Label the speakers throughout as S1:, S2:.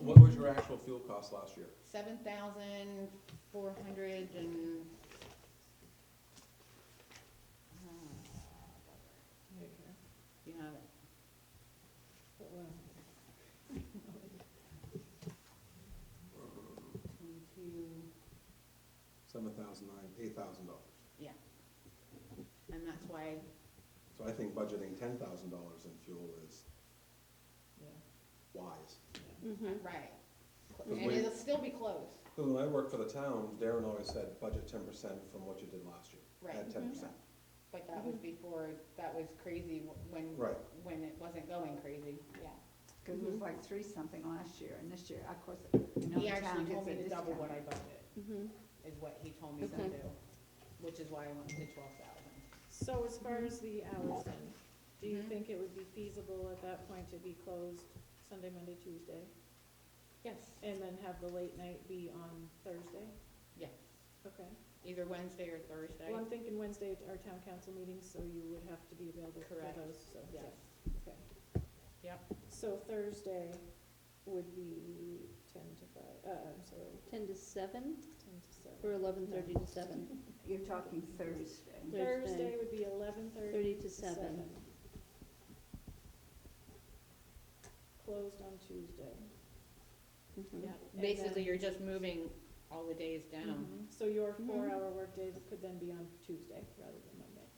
S1: was your actual fuel cost last year?
S2: seven thousand four hundred and. uh, You have it. Twenty-two,
S1: Seven thousand nine, eight thousand dollars.
S2: yeah. And that's why,
S1: So I think budgeting ten thousand dollars in fuel is wise.
S3: Mm-hmm,
S2: right,
S1: 'Cause
S2: and
S1: we-
S2: it'll still be close,
S1: 'cause when I worked for the town, Darren always said, budget ten percent from what you did last year.
S2: Right. Mm-hmm.
S1: At ten percent.
S2: but that was before, that was crazy wh- when.
S1: Right.
S2: When it wasn't going crazy, yeah.
S4: Cause it was like three something last year, and this year, of course, you know,
S2: Mm-hmm. He
S4: the town
S2: actually told
S4: gets
S2: me
S4: a
S2: to double what I
S4: discount.
S3: mm-hmm.
S2: budgeted, is what he told me to
S3: Okay.
S2: do, which is why I went to twelve thousand.
S5: So as far as the hours then, do you
S2: Mhm.
S5: think it would be feasible at that point to be closed Sunday, Monday, Tuesday?
S2: Yes,
S5: And then have the late night be on Thursday?
S2: yes,
S5: Okay.
S2: either Wednesday or Thursday.
S5: Well, I'm thinking Wednesday at our town council meeting, so you would have to be available for
S2: Correct.
S5: those, so, yeah,
S2: Yes,
S5: okay.
S2: yep,
S5: So Thursday would be ten to five, uh, I'm sorry,
S3: Ten to seven,
S5: ten to
S3: or
S5: seven.
S3: eleven thirty to seven?
S4: You're talking Thursday.
S3: Thursday.
S5: Thursday would be eleven thirty
S3: Thirty to seven.
S5: Closed on Tuesday.
S3: Mhm.
S2: yep.
S5: And
S2: Basically,
S5: then-
S2: you're just moving all the days down.
S5: Mhm. So your
S3: Mhm.
S5: four-hour workday could then be on Tuesday rather than Monday.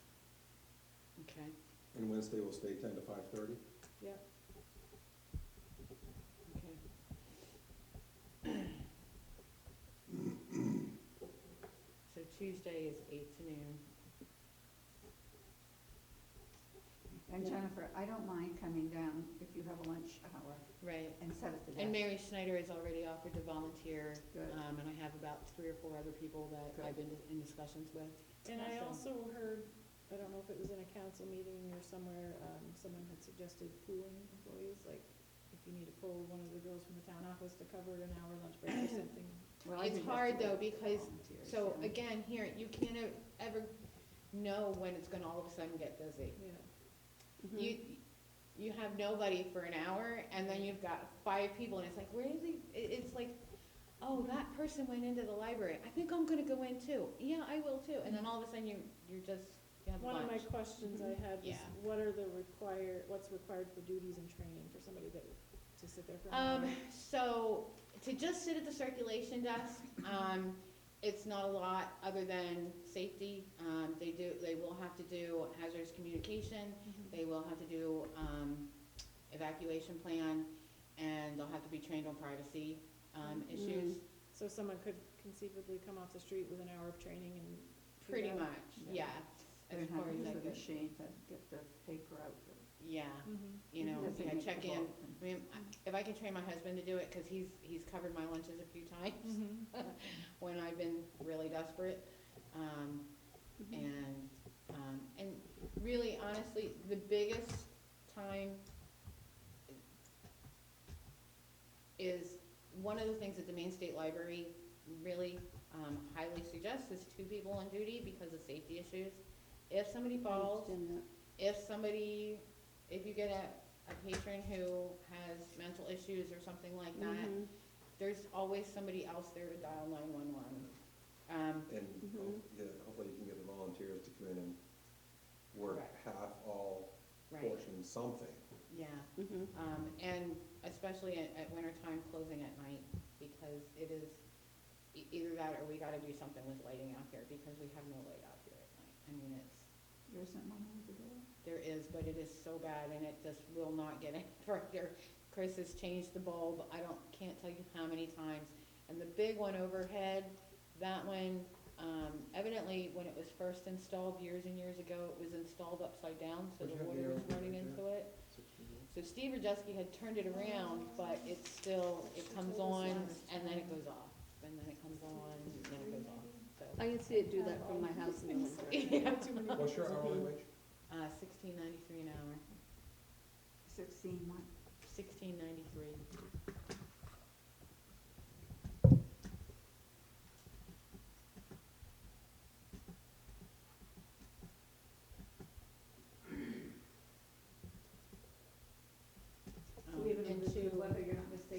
S2: Okay.
S1: And Wednesday will stay ten to five thirty?
S5: Yep.
S2: Okay. So Tuesday is eight to noon.
S4: And Jennifer, I don't mind coming down if you have a lunch hour
S2: Right.
S4: and set up the desk.
S2: And Mary Schneider has already offered to volunteer,
S4: Good.
S2: um, and I have about three or four other people that I've been in discussions with.
S5: And I
S2: Awesome.
S5: also heard, I don't know if it was in a council meeting or somewhere, um, someone had suggested pooling employees, like if you need to pull one of the girls from the town office to cover an hour lunch break or something.
S4: Well, I
S2: It's
S4: think that's
S2: hard,
S4: the way
S2: though,
S4: to get
S2: because-
S4: volunteers,
S2: So
S4: yeah.
S2: again, here, you can't e- ever know when it's gonna all of a sudden get busy.
S5: Yeah,
S3: Mhm.
S2: You, you have nobody for an hour, and then you've got five people, and it's like, where is he, it, it's like, oh, that person went into the library, I think I'm gonna go in too, yeah, I will too, and then all of a sudden, you, you're just, you have
S5: one of my
S2: lunch. Mm-hmm.
S5: questions I had was,
S2: Yeah.
S5: what are the require, what's required for duties and training for somebody that, to sit there for an hour?
S2: Um, so, to just sit at the circulation desk, um, it's not a lot, other than safety, um, they do, they will have to do hazardous communication,
S5: Mhm.
S2: They will have to do, um, evacuation plan, and they'll have to be trained on privacy, um,
S4: Mm-hmm.
S2: issues,
S5: So someone could conceivably come off the street with an hour of training and. do
S2: pretty
S5: that?
S2: much, yeah.
S4: Yeah. They're
S2: As
S4: gonna
S2: far
S4: have to
S2: as
S4: use
S2: I
S4: the
S2: could,
S4: machine to get the paper out. but
S2: yeah,
S5: Mhm.
S2: you know,
S4: doesn't
S2: yeah,
S4: make the
S2: check in,
S4: bulk.
S2: I mean, I- if I can train my husband to do it, cause he's, he's covered my lunches a few
S4: Mm-hmm.
S2: times
S5: Mhm.
S2: when I've been really desperate, um,
S3: Mm-hmm.
S2: and, um, and really honestly, the biggest time is, one of the things that the Maine State Library really, um, highly suggests is two people on duty because of safety issues. If somebody
S3: I
S2: falls,
S3: understand that.
S2: if somebody, if you get a, a patron who has mental issues or something like that,
S3: Mhm.
S2: there's always somebody else there to dial nine-one-one. Um,
S1: And
S3: Mhm.
S1: ho- yeah, hopefully you can get the volunteers to come in and work
S2: Correct.
S1: half, all,
S2: right,
S1: portion, something.
S2: yeah.
S3: Mhm.
S2: Um, and especially at, at winter time, closing at night, because it is, e- either that or we gotta do something with lighting out here, because we have no light out here at night. I mean, it's,
S4: There isn't one over there?
S2: there is, but it is so bad, and it just will not get any brighter. Chris has changed the bulb, I don't, can't tell you how many times, and the big one overhead, that one, um, evidently, when it was first installed years and years ago, it was installed upside down, so
S1: Would you
S2: the
S1: have the
S2: water was
S1: arrow
S2: running
S1: right
S2: into it. So Steve Radusky had turned it around, but it's still, it comes on and then it goes off, and then it comes on, and then it goes off, so.
S3: I can see it do that from my house in the winter.
S1: What's your hourly wage?
S2: Uh, sixteen ninety-three an hour,
S4: Sixteen months.
S2: sixteen ninety-three. Um,